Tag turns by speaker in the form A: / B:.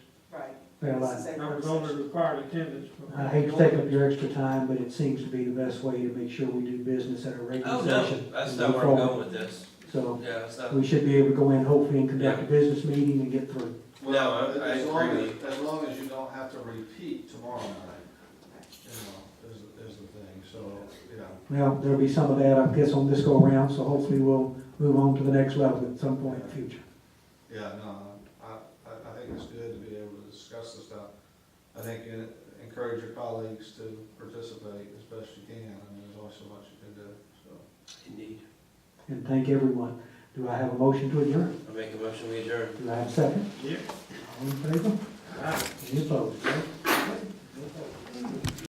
A: Well, I-
B: Same
C: I was
B: conversation.
C: only required attendance. but-
A: I hate to take up your extra time, but it seems to be the best way to make sure we do business at a
D: Oh,
A: regular session.
D: no, that's
A: and
D: not
A: move
D: where I'm
A: forward.
D: going with this.
A: So
D: Yeah, that's not,
A: we should be able to go in hopefully and conduct a business meeting and get through.
D: No, I-
E: Well,
D: I
E: as long
D: agree
E: as, as long as you don't have to repeat tomorrow night, you know, is, is the thing, so, you know.
A: Well, there'll be some of that, I guess, on this go around, so hopefully we'll move on to the next level at some point in the future.
E: Yeah, no, I, I, I think it's good to be able to discuss this stuff. I think en- encourage your colleagues to participate as best you can, I mean, there's only so much you can do, so.
D: indeed.
A: And thank everyone. Do I have a motion to adjourn?
D: I make a motion, we adjourn.
A: Do I have a second?
C: Yeah.
A: All in favor?
C: I-
A: Any opposed?